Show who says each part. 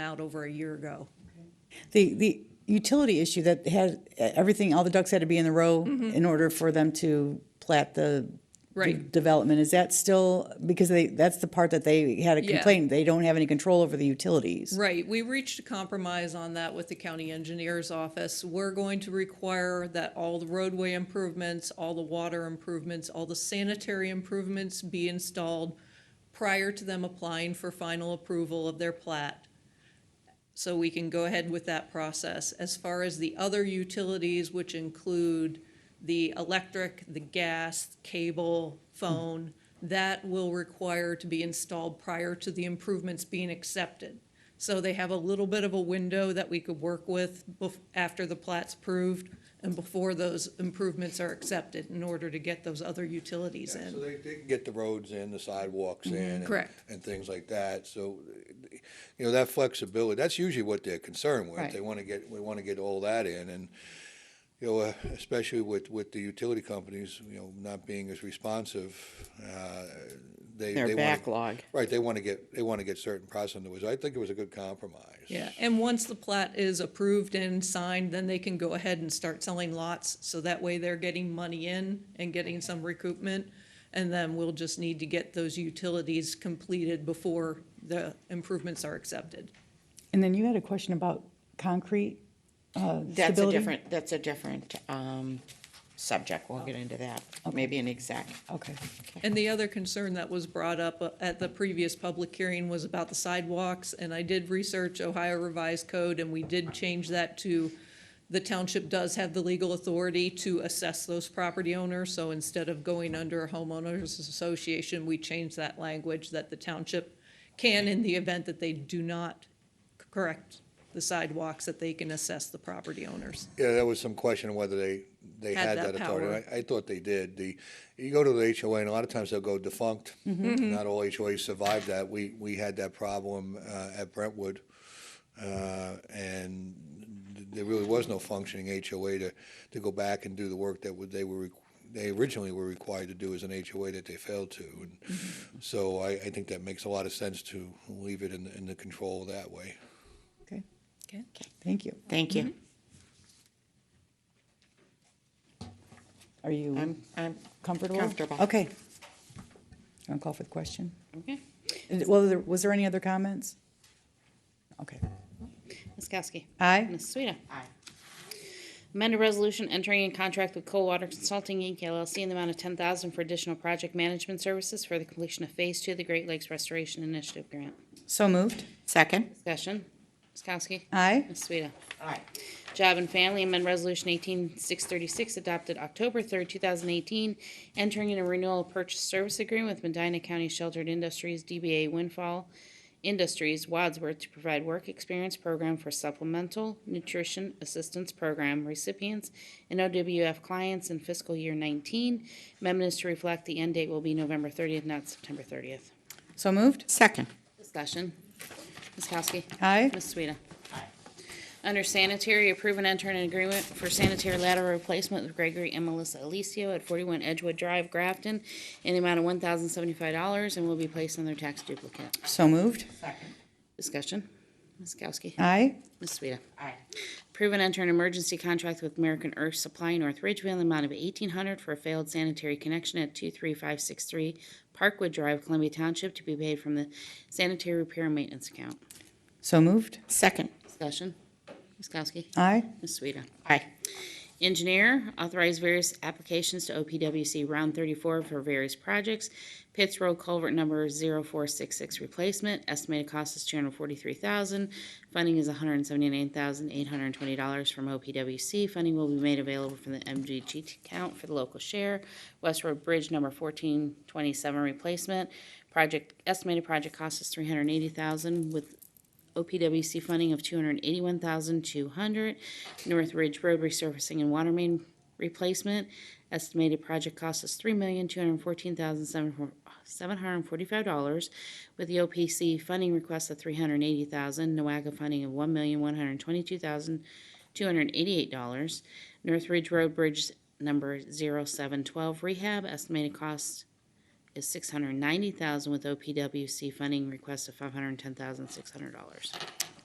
Speaker 1: out over a year ago.
Speaker 2: The, the utility issue that had everything, all the ducks had to be in the row
Speaker 1: Mm-hmm.
Speaker 2: in order for them to plat the de-
Speaker 1: Right.
Speaker 2: development, is that still, because they, that's the part that they had a
Speaker 1: Yeah.
Speaker 2: complaint, they don't have any control over the utilities.
Speaker 1: Right, we reached a compromise on that with the county engineer's office. We're going to require that all the roadway improvements, all the water improvements, all the sanitary improvements be installed prior to them applying for final approval of their plat. So we can go ahead with that process. As far as the other utilities, which include the electric, the gas, cable, phone, that will require to be installed prior to the improvements being accepted. So they have a little bit of a window that we could work with bef- after the plat's approved and before those improvements are accepted in order to get those other utilities
Speaker 3: Yeah,
Speaker 1: in.
Speaker 3: So they, they can get the roads in, the sidewalks in. and-
Speaker 1: Correct.
Speaker 3: And things like that, so, uh, you know, that flexibility, that's usually what they're concerned with.
Speaker 2: Right.
Speaker 3: They wanna get, we wanna get all that in, and, you know, uh, especially with, with the utility companies, you know, not being as responsive, uh, they.
Speaker 4: Their
Speaker 3: they wanna-
Speaker 4: backlog.
Speaker 3: Right, they wanna get, they wanna get certain process in the I think it was a good compromise.
Speaker 1: Yeah, and once the plat is approved and signed, then they can go ahead and start selling lots, so that way they're getting money in and getting some recoupment. And then we'll just need to get those utilities completed before the improvements are accepted.
Speaker 2: And then you had a question about concrete uh,
Speaker 4: That's a
Speaker 2: stability?
Speaker 4: different, that's a different, um, subject. We'll get into that. Maybe an exec.
Speaker 2: Okay,
Speaker 1: And the other concern that was brought up uh, at the previous public hearing was about the sidewalks, and I did research Ohio Revised Code, and we did change that to, the township does have the legal authority to assess those property owners, so instead of going under a homeowners association, we changed that language that the township can, in the event that they do not correct the sidewalks, that they can assess the property owners.
Speaker 3: Yeah, there was some question of whether they, they
Speaker 1: Had
Speaker 3: had
Speaker 1: that
Speaker 3: that authority.
Speaker 1: power.
Speaker 3: I, I thought they did. The, you go to the HOA and a lot of times they'll go defunct.
Speaker 1: Mm-hmm.
Speaker 3: Not all HOAs survive that. We, we had that problem, uh, at Brentwood. Uh, and th- there really was no functioning HOA to, to go back and do the work that would, they were, requ- they originally were required to do as an HOA that they failed to. And
Speaker 1: Mm-hmm.
Speaker 3: so I, I think that makes a lot of sense to leave it in, in the control that way.
Speaker 2: okay,
Speaker 1: Okay.
Speaker 2: thank you.
Speaker 4: Thank you.
Speaker 2: Are you
Speaker 4: I'm, I'm
Speaker 2: comfortable?
Speaker 4: comfortable.
Speaker 2: Okay. Want to call for the question?
Speaker 5: Okay.
Speaker 2: And- Well, there- was there any other comments? Okay.
Speaker 5: Ms. Kowski.
Speaker 2: Aye.
Speaker 5: Ms. Sueda.
Speaker 4: Aye.
Speaker 5: Amend a resolution entering in contract with Coldwater Consulting Inc. LLC in the amount of ten thousand for additional project management services for the completion of Phase Two of the Great Lakes Restoration Initiative Grant.
Speaker 2: So moved.
Speaker 4: Second?
Speaker 5: Discussion. Ms. Kowski.
Speaker 2: Aye.
Speaker 5: Ms. Sueda.
Speaker 4: Aye.
Speaker 5: Job and Family Amendment Resolution eighteen six thirty-six adopted October third, two thousand eighteen, entering in a renewal purchase service agreement with Medina County Sheltered Industries, DBA Windfall Industries, Wadsworth, to provide work experience program for supplemental nutrition assistance program recipients and OWF clients in fiscal year nineteen. Amendment is to reflect the end date will be November thirtieth, not September thirtieth.
Speaker 2: So moved.
Speaker 4: Second?
Speaker 5: Discussion. Ms. Kowski.
Speaker 2: Aye.
Speaker 5: Ms. Sueda. Under sanitary, approve and enter an agreement for sanitary lateral replacement with Gregory and Melissa Alicio at forty-one Edgewood Drive, Grafton, in the amount of one thousand seventy-five dollars and will be placed on their tax duplicate.
Speaker 2: So moved.
Speaker 5: Discussion. Ms. Kowski.
Speaker 2: Aye.
Speaker 5: Ms. Sueda.
Speaker 4: Aye.
Speaker 5: Approve and enter an emergency contract with American Earth Supply North Ridgeville in the amount of eighteen hundred for a failed sanitary connection at two-three-five-six-three Parkwood Drive, Columbia Township, to be paid from the sanitary repair and maintenance account.
Speaker 2: So moved.
Speaker 4: Second?
Speaker 5: Discussion. Ms. Kowski.
Speaker 2: Aye.
Speaker 5: Ms. Sueda.
Speaker 4: Aye.
Speaker 5: Engineer, authorize various applications to OPWC Round 34 for various projects. Pitts Road Culvert Number 0466 replacement, estimated cost is 243000 Funding is $179,820 from OPWC. Funding will be made available from the MGT account for the local share. West Road Bridge Number 1427 replacement, project, estimated project cost is 380000 with OPWC funding of two hundred and eighty-one thousand two hundred, North Ridge Road resurfacing and water main replacement. Estimated project cost is three million two hundred and fourteen thousand seven hundred and forty-five dollars, with the OPC funding request of three hundred and eighty thousand, NOAGA funding of one million one hundred and twenty-two thousand two hundred and eighty-eight dollars. North Ridge Road Bridge number zero seven twelve rehab, estimated cost is six hundred ninety thousand with OPWC funding request of five hundred ten thousand six hundred dollars.